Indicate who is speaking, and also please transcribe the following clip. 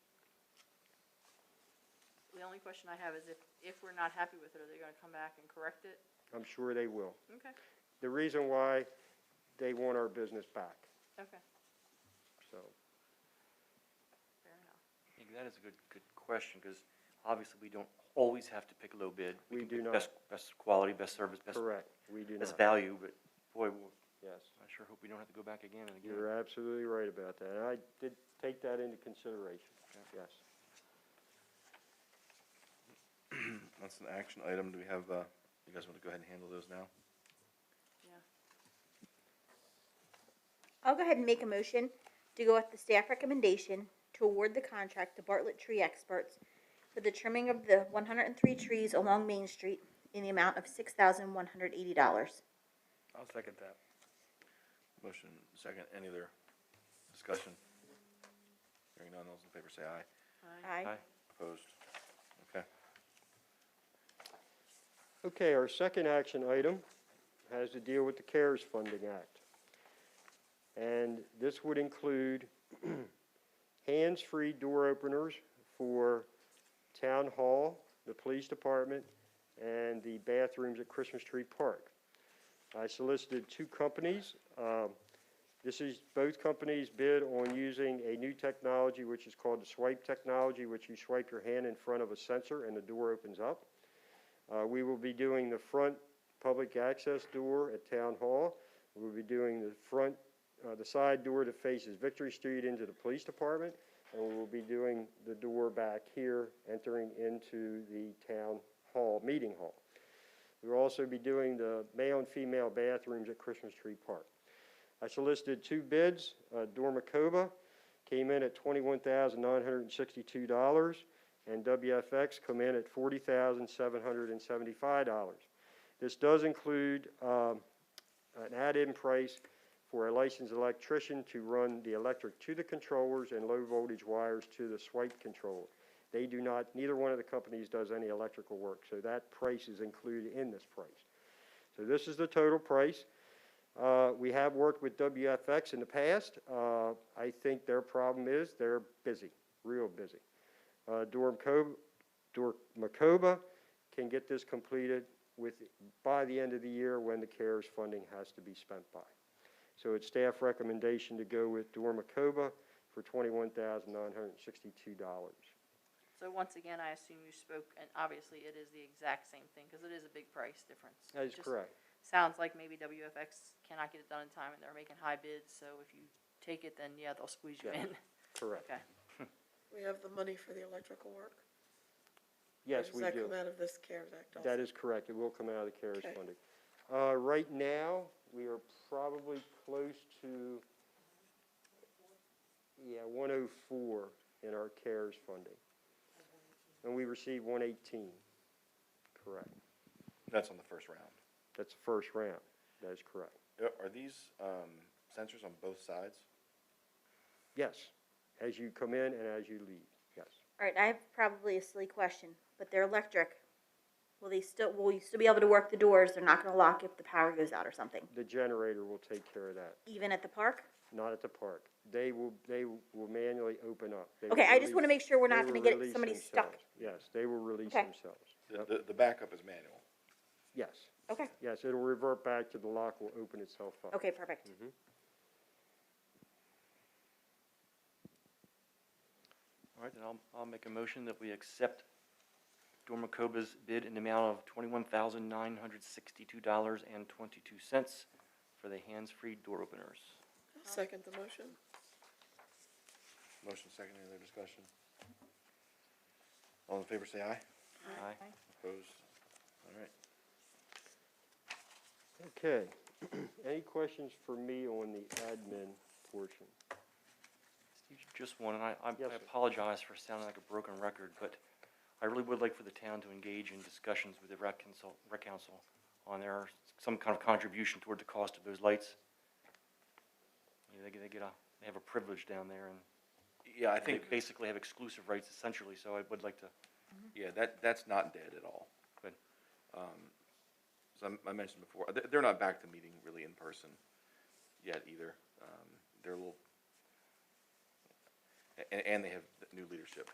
Speaker 1: only question I have is if, if we're not happy with it, are they gonna come back and correct it?
Speaker 2: I'm sure they will.
Speaker 1: Okay,
Speaker 2: The reason why, they want our business back,
Speaker 1: okay,
Speaker 2: so.
Speaker 1: fair enough.
Speaker 3: Yeah, that is a good, good question, because obviously we don't always have to pick low bid.
Speaker 2: We
Speaker 3: can
Speaker 2: do
Speaker 3: pick
Speaker 2: not.
Speaker 3: Best, best quality, best service, best,
Speaker 2: Correct, we do not.
Speaker 3: best value, but boy, we'll-
Speaker 2: Yes,
Speaker 3: I sure hope we don't have to go back again and again.
Speaker 2: you're absolutely right about that. And I did take that into consideration, yes.
Speaker 4: That's an action item. Do we have, uh, you guys want to go ahead and handle those now?
Speaker 5: I'll go ahead and make a motion to go with the staff recommendation to award the contract to Bartlett Tree Experts for the trimming of the one hundred and three trees along Main Street in the amount of six thousand one hundred eighty dollars.
Speaker 6: I'll second that.
Speaker 4: Motion, second, any other discussion? Hearing none, all those in favor say aye.
Speaker 5: Aye.
Speaker 3: Aye.
Speaker 4: Opposed? Okay.
Speaker 2: Okay, our second action item has to deal with the CARES Funding Act. And this would include hands-free door openers for Town Hall, the Police Department, and the bathrooms at Christmas Tree Park. I solicited two companies. Um, This is, both companies bid on using a new technology, which is called the swipe technology, which you swipe your hand in front of a sensor and the door opens up. Uh, We will be doing the front public access door at Town Hall. We'll be doing the front, uh, the side door that faces Victory Street into the police department, and we will be doing the door back here, entering into the Town Hall, Meeting Hall. We'll also be doing the male and female bathrooms at Christmas Tree Park. I solicited two bids. Uh, Dormacoba came in at twenty-one thousand nine hundred and sixty-two dollars and WFX come in at forty thousand seven hundred and seventy-five dollars. This does include um, an add-in price for a licensed electrician to run the electric to the controllers and low-voltage wires to the swipe controller. They do not, neither one of the companies does any electrical work, so that price is included in this price. So this is the total price. Uh, We have worked with WFX in the past. Uh, I think their problem is they're busy, real busy. Uh, Dormco- Dormacoba can get this completed with, by the end of the year when the CARES funding has to be spent by. So it's staff recommendation to go with Dormacoba for $21,962.
Speaker 1: So once again, I assume you spoke, and obviously it is the exact same thing, cause it is a big price difference.
Speaker 2: That is
Speaker 1: Just
Speaker 2: correct.
Speaker 1: Sounds like maybe WFX cannot get it done in time and they're making high bids, so if you take it, then yeah, they'll squeeze you
Speaker 2: Yeah.
Speaker 1: in.
Speaker 2: Correct.
Speaker 1: Okay,
Speaker 7: We have the money for the electrical work? Or
Speaker 2: Yes, we
Speaker 7: Does that
Speaker 2: do.
Speaker 7: come out of this CARES Act also?
Speaker 2: That is correct. It will come out of the CARES
Speaker 7: Okay.
Speaker 2: funding. Uh, Right now, we are probably close to, yeah, 104 in our CARES funding. And we received 118. Correct.
Speaker 4: That's on the first round.
Speaker 2: That's the first round. That is correct.
Speaker 4: Are- Are these um, sensors on both sides?
Speaker 2: Yes, as you come in and as you leave, yes.
Speaker 5: Alright, I have probably a silly question, but they're electric. Will they still, will you still be able to work the doors? They're not gonna lock if the power goes out or something,
Speaker 2: The generator will take care of that,
Speaker 5: even at the park?
Speaker 2: not at the park. They will, they will manually open up. They
Speaker 5: Okay,
Speaker 2: will
Speaker 5: I just wanna
Speaker 2: release-
Speaker 5: make sure we're
Speaker 2: they
Speaker 5: not
Speaker 2: will
Speaker 5: gonna get
Speaker 2: release
Speaker 5: somebody stuck.
Speaker 2: themselves. Yes, they will release
Speaker 5: Okay.
Speaker 2: themselves.
Speaker 4: The- The, the backup is manual.
Speaker 2: Yes,
Speaker 5: Okay,
Speaker 2: yes, it'll revert back to the lock will open itself up.
Speaker 5: okay, perfect.
Speaker 3: All right, then I'll, I'll make a motion that we accept Dormacoba's bid in the amount of twenty-one thousand nine hundred sixty-two dollars and twenty-two cents for the hands-free door openers.
Speaker 7: Second the motion?
Speaker 4: Motion, second, any other discussion? All in favor say aye.
Speaker 3: Aye.
Speaker 4: Opposed? All right.
Speaker 2: Okay, any questions for me on the admin portion?
Speaker 3: Steve, Just one, and I, I
Speaker 2: Yes,
Speaker 3: I
Speaker 2: sir.
Speaker 3: apologize for sounding like a broken record, but I really would like for the town to engage in discussions with the rec council, rec council on their, some kind of contribution toward the cost of those lights. You know, They, get- they get a, they have a privilege down there and
Speaker 4: Yeah, I
Speaker 3: they
Speaker 4: think,
Speaker 3: basically have exclusive rights essentially, so I would like to,
Speaker 4: yeah, that, that's not dead at all.
Speaker 3: Good.
Speaker 4: Um, So I'm- I mentioned before, they're, they're not back to meeting really in person yet either. Um, They're a little, and, and they have new leadership